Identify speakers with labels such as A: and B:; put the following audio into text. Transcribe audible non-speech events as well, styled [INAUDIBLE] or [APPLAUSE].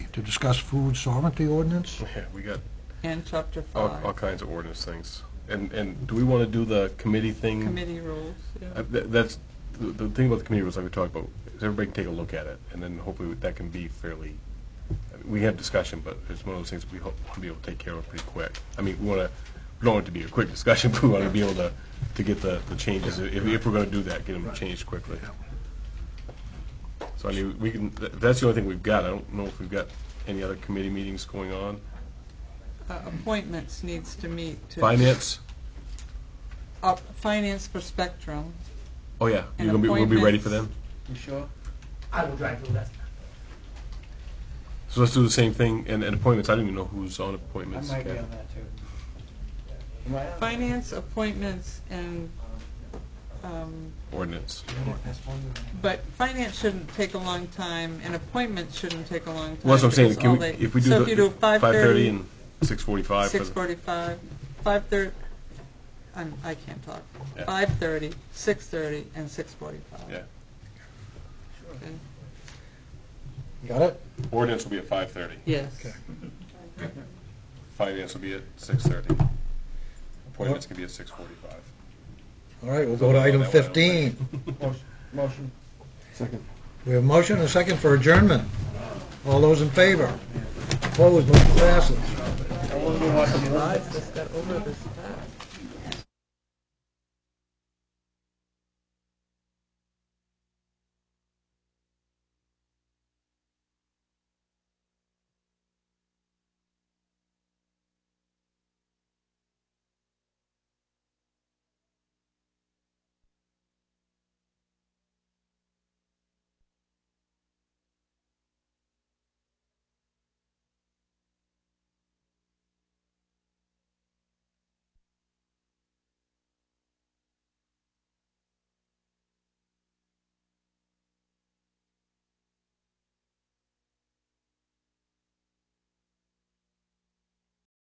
A: to discuss food sovereignty ordinance.
B: Yeah, we got
C: And chapter
B: all, all
C: five,
B: kinds of ordinance things. And, and do we want to do the committee thing?
C: committee rules,
B: Uh,
C: yeah.
B: tha- That's, the the thing about the committee was like we talked about, is everybody can take a look at it, and then hopefully that can be fairly, I mean, we have discussion, but it's one of those things we hope to be able to take care of pretty quick. I mean, we want to, we don't want it to be a quick discussion, [LAUGHS] but we want to be able to, to get the, the changes, if, if we're going to do that, get them changed quickly. So I mean, we can, tha- that's the only thing we've got. I don't know if we've got any other committee meetings going on.
C: Uh, Appointments needs to meet to.
B: Finance?
C: Uh, Finance for Spectrum.
B: Oh, yeah.
C: And
B: You're gonna be, we'll be ready for them?
C: appointments.
D: You sure?
E: I will drive through that.
B: So let's do the same thing, and, and appointments, I don't even know who's on
D: I
B: appointments.
D: might be
B: Kathy.
D: on that too. Am I on?
C: Finance, appointments, and, um,
B: Ordinance.
C: but finance shouldn't take a long time, and appointments shouldn't take a long time.
B: Well, that's what I'm saying,
C: because
B: can
C: all
B: we,
C: they-
B: if we do
C: So
B: the...
C: if you do five-thirty.
B: 5:30 and 6:45. for the-
C: Six forty-five, five thirty, I'm, I can't talk.
B: Yeah.
C: Five thirty, six thirty, and six forty-five.
B: Yeah.
C: Okay.
A: Got it?
B: Ordinance will be at 5:30.
C: Yes.
B: Finance will be at 6:30. Appointments can be at 6:45.
A: All right, we'll go to item 15.
D: Motion- Motion. Second.
A: We have motion and second for adjournment. All those in favor? Opposed, motion passes.
D: I wonder what the-
C: Just got over this time.